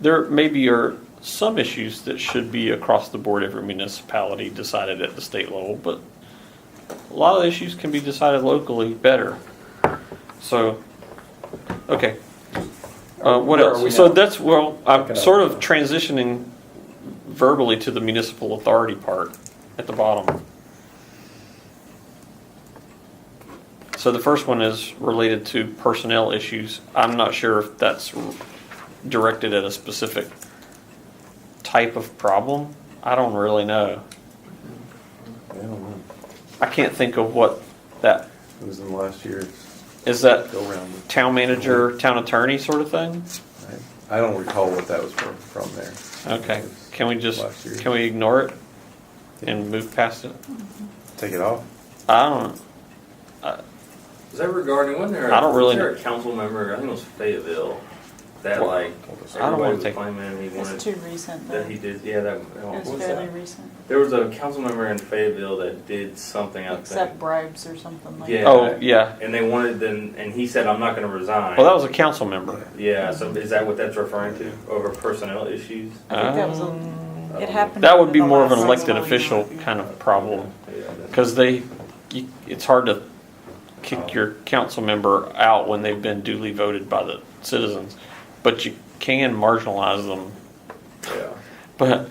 there maybe are some issues that should be across the board every municipality decided at the state level, but a lot of issues can be decided locally better. So, okay. Uh, what Where are we else? So now? that's, well, Okay. I'm sort of transitioning verbally to the municipal authority part at the bottom. So the first one is related to personnel issues. I'm not sure if that's directed at a specific type of problem. I don't really know. I don't know. I can't think of what that, It was in the last year's is that go round. town manager, town attorney sort of thing? I- I don't recall what that was from, from there. Okay, can we just, Last year. can we ignore it and move past it? Take it off? I don't, Is that regarding, wasn't there, I don't really was there a council member, I think it was Fayetteville, that Well, like, I don't wanna everybody was take- claiming he It's wanted, too recent, though. that he It did, yeah, that, what was was fairly that? recent, There was a council member in Fayetteville that did something, I except think. bribes or something like Yeah. that. oh, yeah. And they wanted, then, and he said, I'm not gonna resign. Well, that was a council member. Yeah, so is that what that's referring to, over personnel issues? I think that was, Um, a- it happened. That would be within the more of an last elected month. official kind of problem, Yeah, that's- because they, you- it's hard to kick your council member out when they've been duly voted by the citizens, but you can marginalize them yeah. but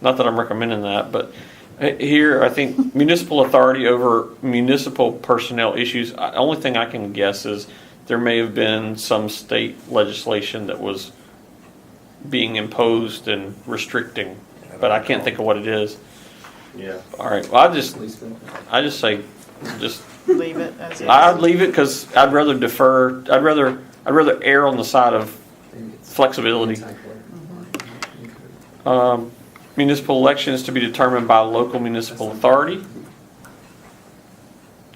not that I'm recommending that, but here, I think municipal authority over municipal personnel issues, I- only thing I can guess is there may have been some state legislation that was being imposed and restricting, but I can't think of what it is. Yeah. All right, well, I just, I just say, just Leave it as is. I'd leave it because I'd rather defer, I'd rather, I'd rather err on the side of flexibility. Um, Municipal election is to be determined by local municipal authority.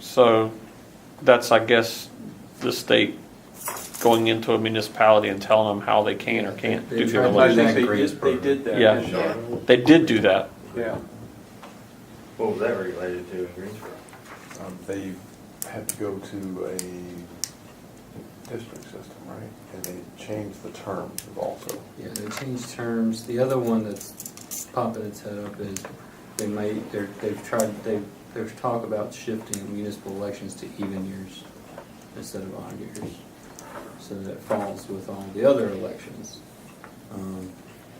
So that's, I guess, the state going into a municipality and telling them how they can or can't do their tried election. to- they did, they did that. Yeah. didn't they? They did do that. Yeah. What was that related to in Greensboro? Um, They had to go to a district system, right? And they changed the terms of also. Yeah, they changed terms. The other one that's popping its head up is they may, they're, they've tried, they, there's talk about shifting municipal elections to even years instead of odd years. So that falls with all the other elections. Um,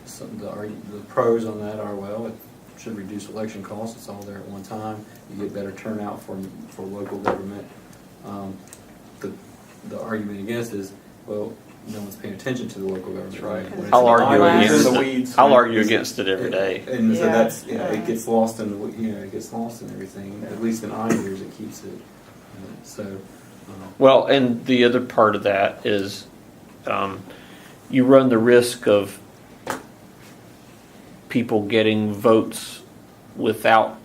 Some, the, argu- the pros on that are, well, it should reduce election costs, it's all there at one time. You get better turnout for, for local government. Um, The, the argument against is, well, no one's paying attention to the local government. right. When it's I'll an argue odd year- against In the it. weeds. I'll argue against it every day. and so Yeah. that's, you know, Yeah. it gets lost in, the w- you know, it gets lost in everything, at least in odd years, it keeps it. uh, So, um, Well, and the other part of that is um, you run the risk of people getting votes without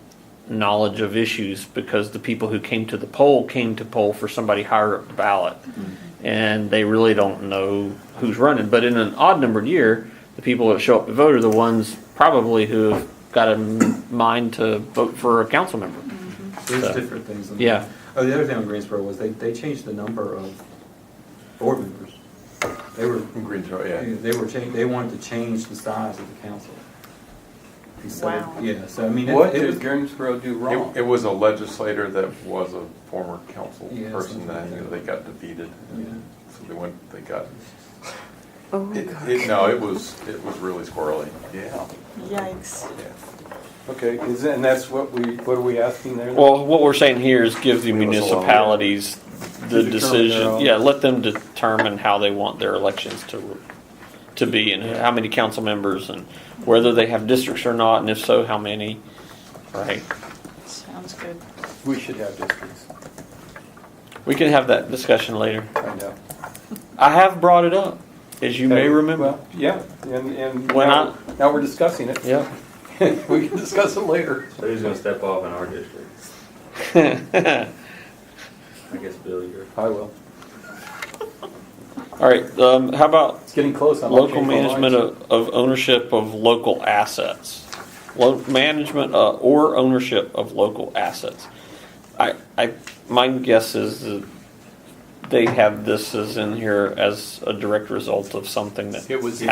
knowledge of issues because the people who came to the poll came to poll for somebody higher up the ballot. And they really don't know who's running. But in an odd numbered year, the people that show up to vote are the ones probably who have got a m- mind to vote for a council member. there's So, different things. in yeah. there. Oh, the other thing in Greensboro was they, they changed the number of board members. They were, In Greensboro, yeah. they were changing, they wanted to change the size of the council. And so- Wow. Yeah, so I mean, it What it did was, Greensboro do It, wrong? it was a legislator that was a former council Yeah, person something that, like you know, that. they got defeated. and So they went, they got, Oh, it, it, no, it was, it was really squirrely. Yeah. Yikes. Yeah. Okay, is, and that's what we, what are we asking there? Well, what we're saying here is give the Leave us alone. municipalities the Determine their decision, own. yeah, let them determine how they want their elections to, to be and how many council members and whether they have districts or not, and if so, how many, right? Sounds good. We should have districts, We can have that discussion later. I know. I have brought it up, as you may remember. Well, Yeah, and, and When now, now we're discussing it. Yeah. We can discuss it later. So who's gonna step off in our district? I guess Bill, you're. I will. All right, um, how about It's getting close. I'm Local okay for lunch. management of, of ownership of local assets. Lo- management uh, or ownership of local assets. I, I, my guess is that they have this as in here as a direct result of something that It was